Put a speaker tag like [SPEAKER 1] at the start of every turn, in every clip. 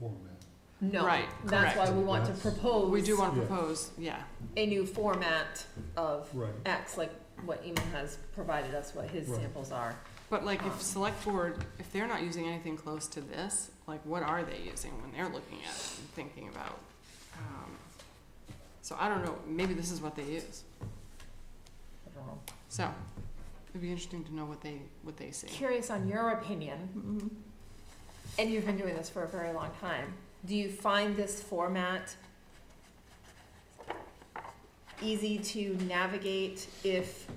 [SPEAKER 1] format.
[SPEAKER 2] No,
[SPEAKER 3] Right,
[SPEAKER 2] that's why
[SPEAKER 3] correct.
[SPEAKER 2] we want to
[SPEAKER 1] That's-
[SPEAKER 2] propose
[SPEAKER 3] We do want to
[SPEAKER 1] Yeah.
[SPEAKER 3] propose, yeah,
[SPEAKER 2] a new format of
[SPEAKER 1] Right.
[SPEAKER 2] X, like what Eamon has provided us, what his
[SPEAKER 1] Right.
[SPEAKER 2] samples are.
[SPEAKER 3] but like
[SPEAKER 2] Um.
[SPEAKER 3] if select board, if they're not using anything close to this, like what are they using when they're looking at it and thinking about? um, So I don't know, maybe this is what they use,
[SPEAKER 2] I don't know.
[SPEAKER 3] so it'd be interesting to know what they, what they see.
[SPEAKER 2] Curious on your opinion,
[SPEAKER 4] Mm-hmm.
[SPEAKER 2] and you've been doing this for a very long time. Do you find this format easy to navigate if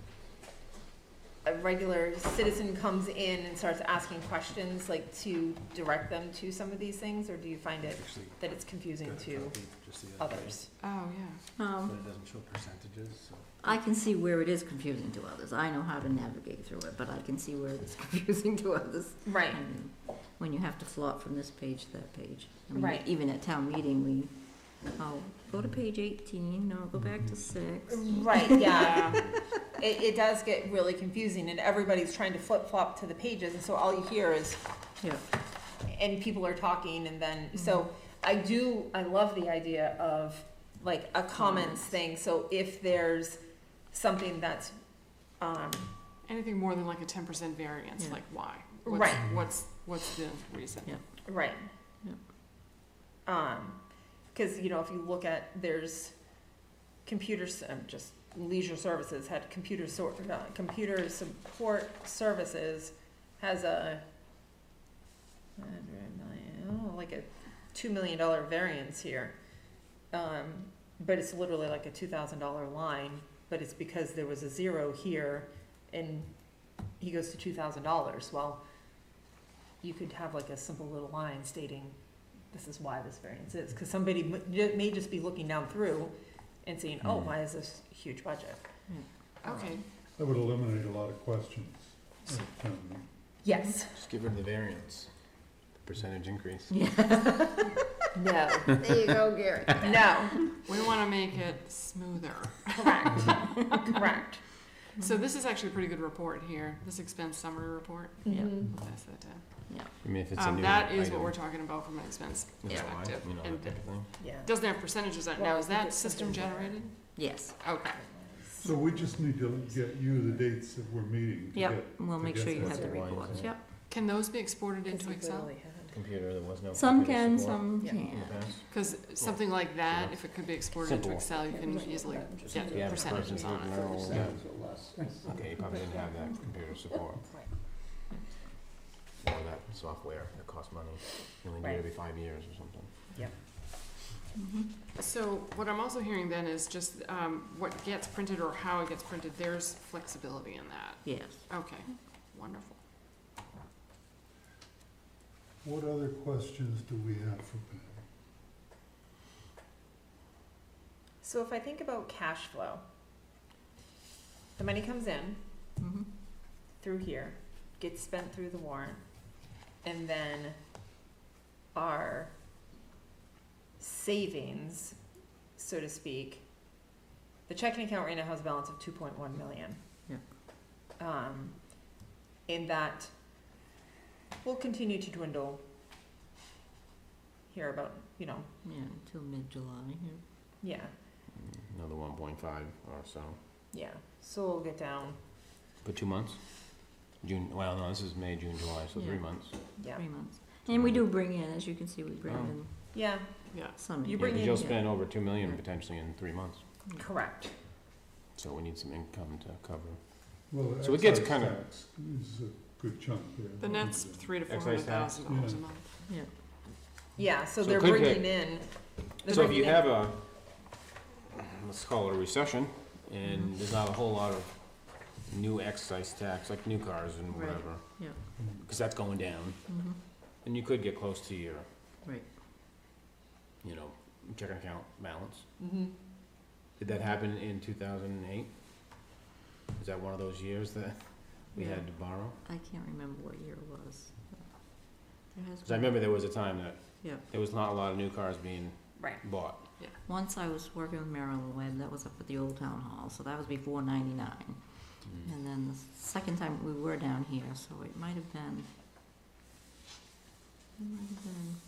[SPEAKER 2] a regular citizen comes in and starts asking questions, like to direct them to some of these things, or do you find it
[SPEAKER 1] Actually,
[SPEAKER 2] that it's confusing
[SPEAKER 1] got a
[SPEAKER 2] to
[SPEAKER 1] copy just the other day,
[SPEAKER 2] others?
[SPEAKER 3] Oh, yeah,
[SPEAKER 1] But
[SPEAKER 4] Um,
[SPEAKER 1] it doesn't show percentages, so.
[SPEAKER 4] I can see where it is confusing to others. I know how to navigate through it, but I can see where it's confusing to others.
[SPEAKER 2] Right.
[SPEAKER 4] And When you have to flop from this page to that page. I mean,
[SPEAKER 2] Right.
[SPEAKER 4] Even at town meeting, we, oh, go to page eighteen, no, go back to six.
[SPEAKER 2] Right, yeah.
[SPEAKER 3] yeah,
[SPEAKER 2] It, it does get really confusing and everybody's trying to flip flop to the pages and so all you hear is,
[SPEAKER 4] Yeah,
[SPEAKER 2] and people are talking and then, so I do, I love the idea of like a comments
[SPEAKER 4] Comments.
[SPEAKER 2] thing, so if there's something that's, um,
[SPEAKER 3] anything more than like a ten percent variance,
[SPEAKER 4] Yeah.
[SPEAKER 3] like why? What's-
[SPEAKER 2] Right.
[SPEAKER 3] What's, what's the reason?
[SPEAKER 4] Yeah.
[SPEAKER 2] right.
[SPEAKER 4] Yeah.
[SPEAKER 2] Um, cause you know, if you look at, there's computers, um, just leisure services had computer sort, uh, computer support services has a hundred million, oh, like a two million dollar variance here. Um, but it's literally like a two thousand dollar line, but it's because there was a zero here and he goes to two thousand dollars. Well, you could have like a simple little line stating, this is why this variance is, cause somebody m- ju- may just be looking down through and saying, oh,
[SPEAKER 1] Mhm.
[SPEAKER 2] why is this huge budget?
[SPEAKER 3] Okay,
[SPEAKER 1] That would eliminate a lot of questions. at town meeting.
[SPEAKER 2] Yes.
[SPEAKER 5] Just give them the variance, percentage increase.
[SPEAKER 4] yeah.
[SPEAKER 2] No.
[SPEAKER 4] There you go, Gary.
[SPEAKER 2] No.
[SPEAKER 3] we wanna make it smoother.
[SPEAKER 2] Correct. Correct. Mm-hmm.
[SPEAKER 3] So this is actually a pretty good report here, this expense summary report.
[SPEAKER 4] Yeah.
[SPEAKER 2] Mhm.
[SPEAKER 3] Pass that down.
[SPEAKER 5] I mean, if it's a
[SPEAKER 3] Um,
[SPEAKER 5] new
[SPEAKER 3] that is what
[SPEAKER 5] item,
[SPEAKER 3] we're talking about from an expense
[SPEAKER 5] is that why?
[SPEAKER 3] perspective.
[SPEAKER 5] You know, that
[SPEAKER 3] And
[SPEAKER 5] type of thing.
[SPEAKER 2] Yeah.
[SPEAKER 3] it doesn't have percentages on it. Now, is
[SPEAKER 2] Well, I think
[SPEAKER 3] that
[SPEAKER 2] it's
[SPEAKER 3] system
[SPEAKER 2] something that-
[SPEAKER 3] generated?
[SPEAKER 4] Yes,
[SPEAKER 3] Okay.
[SPEAKER 1] So we just need to get you the dates that we're meeting to
[SPEAKER 4] yep,
[SPEAKER 1] get.
[SPEAKER 4] we'll make sure you
[SPEAKER 5] That's
[SPEAKER 4] have the
[SPEAKER 5] the wine,
[SPEAKER 4] reports,
[SPEAKER 5] isn't it?
[SPEAKER 4] yep.
[SPEAKER 3] Can those be exported
[SPEAKER 2] Because
[SPEAKER 3] into
[SPEAKER 2] we
[SPEAKER 3] Excel?
[SPEAKER 2] literally had-
[SPEAKER 5] Computer, there was no.
[SPEAKER 4] Some
[SPEAKER 5] computer
[SPEAKER 4] can,
[SPEAKER 5] support
[SPEAKER 4] some
[SPEAKER 2] Yeah.
[SPEAKER 5] in the
[SPEAKER 4] can't.
[SPEAKER 5] past.
[SPEAKER 3] Because something like that, if it could be exported into
[SPEAKER 5] Simple.
[SPEAKER 3] Excel, you
[SPEAKER 2] Yeah,
[SPEAKER 3] can
[SPEAKER 2] just like
[SPEAKER 3] easily
[SPEAKER 2] that, just
[SPEAKER 3] get
[SPEAKER 2] like
[SPEAKER 5] Yeah,
[SPEAKER 2] that.
[SPEAKER 5] but
[SPEAKER 3] percentages
[SPEAKER 5] personally,
[SPEAKER 3] on it.
[SPEAKER 5] no.
[SPEAKER 1] Percentages or less.
[SPEAKER 5] Okay, you probably didn't have that computer support.
[SPEAKER 2] Right.
[SPEAKER 5] Or that software, it costs money, you only need it every five years or something.
[SPEAKER 4] Mhm.
[SPEAKER 3] So what I'm also hearing then is just um, what gets printed or how it gets printed, there's flexibility in that.
[SPEAKER 4] Yes.
[SPEAKER 3] Okay, wonderful.
[SPEAKER 1] What other questions do we have for Pam?
[SPEAKER 2] So if I think about cash flow, the money comes in
[SPEAKER 4] Mhm.
[SPEAKER 2] through here, gets spent through the warrant, and then our savings, so to speak, the checking account right now has a balance of two point one million.
[SPEAKER 4] Yeah.
[SPEAKER 2] Um, and that will continue to dwindle here about, you know,
[SPEAKER 4] Yeah, until mid-July, yeah.
[SPEAKER 2] yeah.
[SPEAKER 5] Another one point five or so,
[SPEAKER 2] Yeah, so we'll get down,
[SPEAKER 5] but two months? June, well, no, this is May, June, July, so three
[SPEAKER 4] Yeah.
[SPEAKER 5] months.
[SPEAKER 2] yeah.
[SPEAKER 4] three months. And we do bring in, as you can see, we bring
[SPEAKER 5] Oh.
[SPEAKER 4] in
[SPEAKER 2] Yeah,
[SPEAKER 3] Yeah.
[SPEAKER 4] some.
[SPEAKER 2] You
[SPEAKER 5] Yeah,
[SPEAKER 2] bring
[SPEAKER 5] because
[SPEAKER 2] in-
[SPEAKER 5] you'll
[SPEAKER 4] yeah.
[SPEAKER 5] spend over two million potentially in three months,
[SPEAKER 2] correct.
[SPEAKER 5] so we need some income to cover.
[SPEAKER 1] Well,
[SPEAKER 5] So it gets
[SPEAKER 1] excise
[SPEAKER 5] kinda-
[SPEAKER 1] tax Is a good chunk there.
[SPEAKER 5] Mm-hmm.
[SPEAKER 3] The net's three to four hundred
[SPEAKER 5] Excise tax.
[SPEAKER 3] thousand dollars a
[SPEAKER 1] Yeah.
[SPEAKER 3] month.
[SPEAKER 2] Yeah, so
[SPEAKER 5] So
[SPEAKER 2] they're
[SPEAKER 5] it could
[SPEAKER 2] bringing in. they're
[SPEAKER 5] So if
[SPEAKER 2] bringing in-
[SPEAKER 5] you have a, let's call it a recession,
[SPEAKER 4] Mm-hmm.
[SPEAKER 5] and there's not a whole lot of new excise tax, like new cars and
[SPEAKER 4] Right.
[SPEAKER 5] whatever,
[SPEAKER 1] Mm.
[SPEAKER 5] because that's going down,
[SPEAKER 4] Mhm.
[SPEAKER 5] and you could get close to your,
[SPEAKER 4] Right.
[SPEAKER 5] you know, checking account balance.
[SPEAKER 2] Mhm.
[SPEAKER 5] Did that happen in two thousand and eight? Is that one of those years that we
[SPEAKER 4] Yeah.
[SPEAKER 5] had to borrow?
[SPEAKER 4] I can't remember what year it was. There has
[SPEAKER 5] Because I
[SPEAKER 4] been-
[SPEAKER 5] remember there was a time that
[SPEAKER 4] Yeah.
[SPEAKER 5] there was not a lot of new cars being
[SPEAKER 2] Right,
[SPEAKER 5] bought.
[SPEAKER 4] Once I was working with Marilyn Webb, that was up at the old town hall, so that was before ninety-nine. And then the second time we were down here, so it might have been, it might have been